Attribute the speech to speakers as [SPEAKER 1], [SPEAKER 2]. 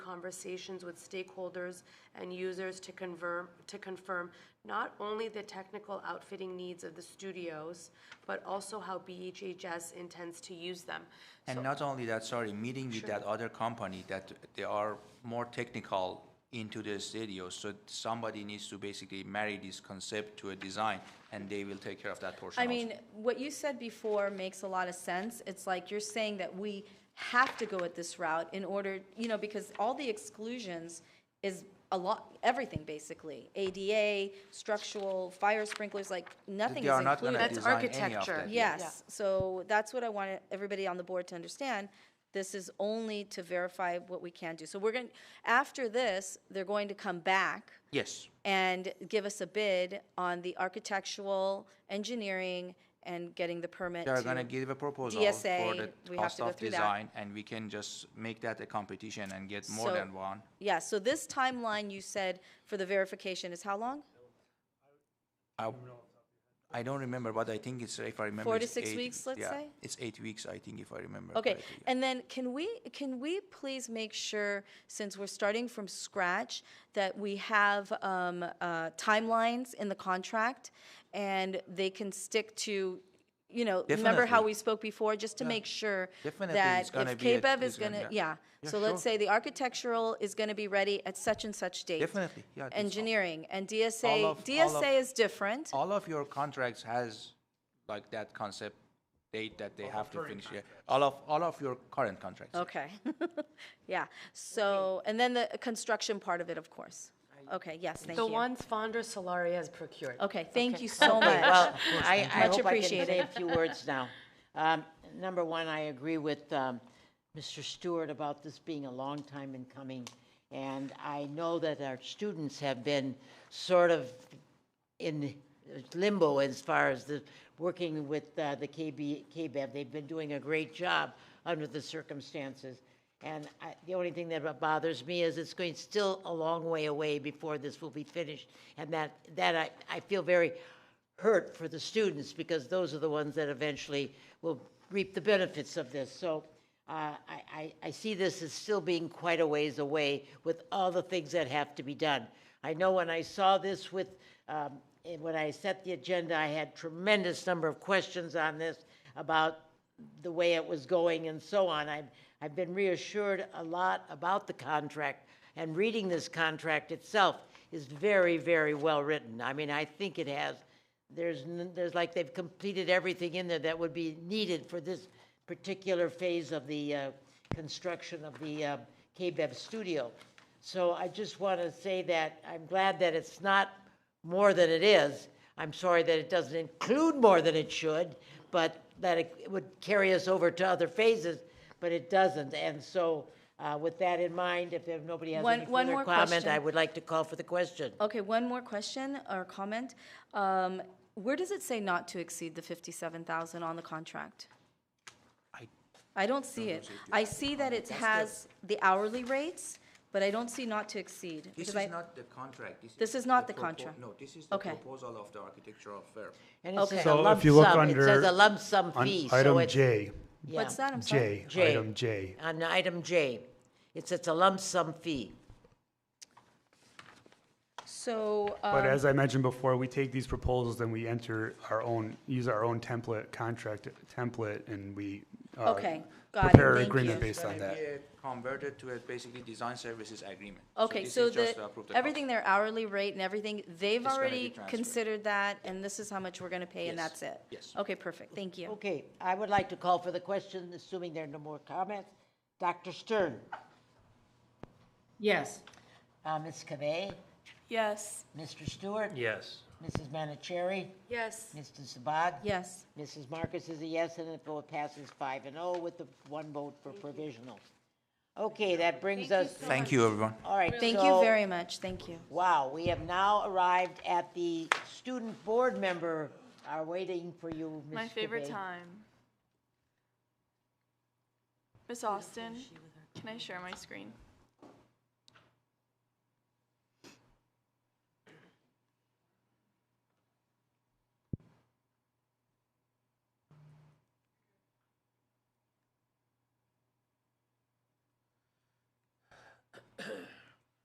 [SPEAKER 1] conversations with stakeholders and users to confirm, to confirm not only the technical outfitting needs of the studios, but also how BHHS intends to use them.
[SPEAKER 2] And not only that, sorry, meeting with that other company that they are more technical into the studio, so somebody needs to basically marry this concept to a design, and they will take care of that portion
[SPEAKER 3] I
[SPEAKER 2] also.
[SPEAKER 3] mean, what you said before makes a lot of sense. It's like you're saying that we have to go at this route in order, you know, because all the exclusions is a lot, everything basically. ADA, structural, fire sprinklers, like nothing
[SPEAKER 2] They
[SPEAKER 3] is
[SPEAKER 2] are not
[SPEAKER 3] included.
[SPEAKER 2] gonna
[SPEAKER 1] That's
[SPEAKER 2] design any of
[SPEAKER 1] architecture.
[SPEAKER 2] that.
[SPEAKER 3] Yes, so that's what I want everybody on the board to understand. This is only to verify what we can do. So we're going, after this, they're going to come back
[SPEAKER 2] Yes,
[SPEAKER 3] and give us a bid on the architectural, engineering, and getting the permit
[SPEAKER 2] they are gonna
[SPEAKER 3] to.
[SPEAKER 2] give a proposal
[SPEAKER 3] DSA,
[SPEAKER 2] for the
[SPEAKER 3] we have
[SPEAKER 2] cost
[SPEAKER 3] to go
[SPEAKER 2] of
[SPEAKER 3] through that.
[SPEAKER 2] design, and we can just make that a competition and get more
[SPEAKER 3] So-
[SPEAKER 2] than one.
[SPEAKER 3] Yeah, so this timeline you said for the verification is how long?
[SPEAKER 2] I, I don't remember, but I think it's, if I remember.
[SPEAKER 3] Four to
[SPEAKER 2] it's
[SPEAKER 3] six
[SPEAKER 2] eight-
[SPEAKER 3] weeks, let's
[SPEAKER 2] yeah,
[SPEAKER 3] say?
[SPEAKER 2] It's eight weeks, I think, if I remember.
[SPEAKER 3] Okay,
[SPEAKER 2] correctly, yeah.
[SPEAKER 3] and then can we, can we please make sure, since we're starting from scratch, that we have um, uh, timelines in the contract? And they can stick to, you know, remember how
[SPEAKER 2] Definitely.
[SPEAKER 3] we spoke before, just to make sure
[SPEAKER 2] Definitely,
[SPEAKER 3] that
[SPEAKER 2] it's gonna
[SPEAKER 3] if
[SPEAKER 2] be a-
[SPEAKER 3] KBEV
[SPEAKER 2] it's
[SPEAKER 3] is
[SPEAKER 2] gonna-
[SPEAKER 3] gonna,
[SPEAKER 2] yeah.
[SPEAKER 3] yeah.
[SPEAKER 2] Yeah,
[SPEAKER 3] So let's
[SPEAKER 2] sure.
[SPEAKER 3] say the architectural is gonna be ready at such and such date.
[SPEAKER 2] Definitely, yeah, I think so.
[SPEAKER 3] Engineering, and
[SPEAKER 2] All
[SPEAKER 3] DSA,
[SPEAKER 2] of- all of-
[SPEAKER 3] DSA is different.
[SPEAKER 2] all of your contracts has like that concept date that they have to finish. Yeah, all of all of your current contracts.
[SPEAKER 3] Okay, yeah, so, and then the construction part of it, of course. Okay, yes, thank you.
[SPEAKER 4] The ones Fonder Solari has procured.
[SPEAKER 3] Okay, thank you so much.
[SPEAKER 5] Well, I, I
[SPEAKER 3] Much
[SPEAKER 5] hope I can
[SPEAKER 3] appreciated.
[SPEAKER 5] say a few words now. Um, Number one, I agree with um, Mr. Stewart about this being a long time in coming. And I know that our students have been sort of in limbo as far as the, working with uh, the KB, KBEV. E They've been doing a great job under the circumstances. And I, the only thing that bothers me is it's going still a long way away before this will be finished. And that, that I, I feel very hurt for the students because those are the ones that eventually will reap the benefits of this. So uh, I, I, I see this as still being quite a ways away with all the things that have to be done. I know when I saw this with, um, eh, when I set the agenda, I had tremendous number of questions on this about the way it was going and so on. I've, I've been reassured a lot about the contract, and reading this contract itself is very, very well written. I mean, I think it has, there's, n- there's like they've completed everything in there that would be needed for this particular phase of the uh, construction of the uh, KBEV studio. So I just want to say that I'm glad that it's not more than it is. I'm sorry that it doesn't include more than it should, but that it would carry us over to other phases, but it doesn't. And so uh, with that in mind, if there- nobody has
[SPEAKER 3] One-
[SPEAKER 5] any
[SPEAKER 3] one
[SPEAKER 5] further
[SPEAKER 3] more
[SPEAKER 5] comment,
[SPEAKER 3] question.
[SPEAKER 5] I would like to call for the question.
[SPEAKER 3] Okay, one more question or comment. Um, Where does it say not to exceed the 57,000 on the contract?
[SPEAKER 2] I-
[SPEAKER 3] I don't see it. I see that it has the hourly rates, but I don't see not to exceed.
[SPEAKER 2] This
[SPEAKER 3] because
[SPEAKER 2] is
[SPEAKER 3] I-
[SPEAKER 2] not the contract.
[SPEAKER 3] This is not the contract.
[SPEAKER 2] No, this is the
[SPEAKER 3] Okay.
[SPEAKER 2] proposal of the architectural firm.
[SPEAKER 5] And it says a
[SPEAKER 6] So
[SPEAKER 5] lump
[SPEAKER 6] if you look
[SPEAKER 5] sum, it
[SPEAKER 6] under.
[SPEAKER 5] says a lump sum
[SPEAKER 6] on
[SPEAKER 5] fee, so
[SPEAKER 6] Item
[SPEAKER 5] it.
[SPEAKER 6] J,
[SPEAKER 5] yeah.
[SPEAKER 3] What's that? I'm sorry.
[SPEAKER 6] J, item J.
[SPEAKER 5] On item J, it says a lump sum fee.
[SPEAKER 3] So,
[SPEAKER 6] But
[SPEAKER 3] um,
[SPEAKER 6] as I mentioned before, we take these proposals, then we enter our own, use our own template, contract template, and we. uh,
[SPEAKER 3] Okay, got it,
[SPEAKER 6] Prepare an
[SPEAKER 3] thank
[SPEAKER 6] agreement
[SPEAKER 3] you.
[SPEAKER 6] based on that.
[SPEAKER 2] Converted to a basically design services agreement.
[SPEAKER 3] okay,
[SPEAKER 2] this
[SPEAKER 3] so
[SPEAKER 2] is just
[SPEAKER 3] the,
[SPEAKER 2] to approve the
[SPEAKER 3] everything,
[SPEAKER 2] contract.
[SPEAKER 3] their hourly rate and everything, they've
[SPEAKER 2] gonna be
[SPEAKER 3] already
[SPEAKER 2] transferred.
[SPEAKER 3] considered that, and this is how much we're going to pay, and
[SPEAKER 2] Yes,
[SPEAKER 3] that's it?
[SPEAKER 2] yes.
[SPEAKER 3] Okay, perfect, thank you.
[SPEAKER 5] Okay, I would like to call for the question, assuming there are no more comments. Dr. Stern,
[SPEAKER 4] Yes.
[SPEAKER 5] uh, Ms. Cavay,
[SPEAKER 3] Yes.
[SPEAKER 5] Mr. Stewart?
[SPEAKER 7] Yes.
[SPEAKER 5] Mrs. Manicherry?
[SPEAKER 1] Yes.
[SPEAKER 5] Mr. Sabag?
[SPEAKER 3] Yes.
[SPEAKER 5] Mrs. Marcus is a yes, and the vote passes five and oh with the one vote for provisional. Okay, that brings us,
[SPEAKER 2] Thank you, everyone.
[SPEAKER 5] all right.
[SPEAKER 3] Thank you
[SPEAKER 5] so-
[SPEAKER 3] very much, thank you.
[SPEAKER 5] Wow, we have now arrived at the student board member are waiting for you, Ms.
[SPEAKER 8] My favorite
[SPEAKER 5] Dubay.
[SPEAKER 8] time. Miss Austin, can I share my screen?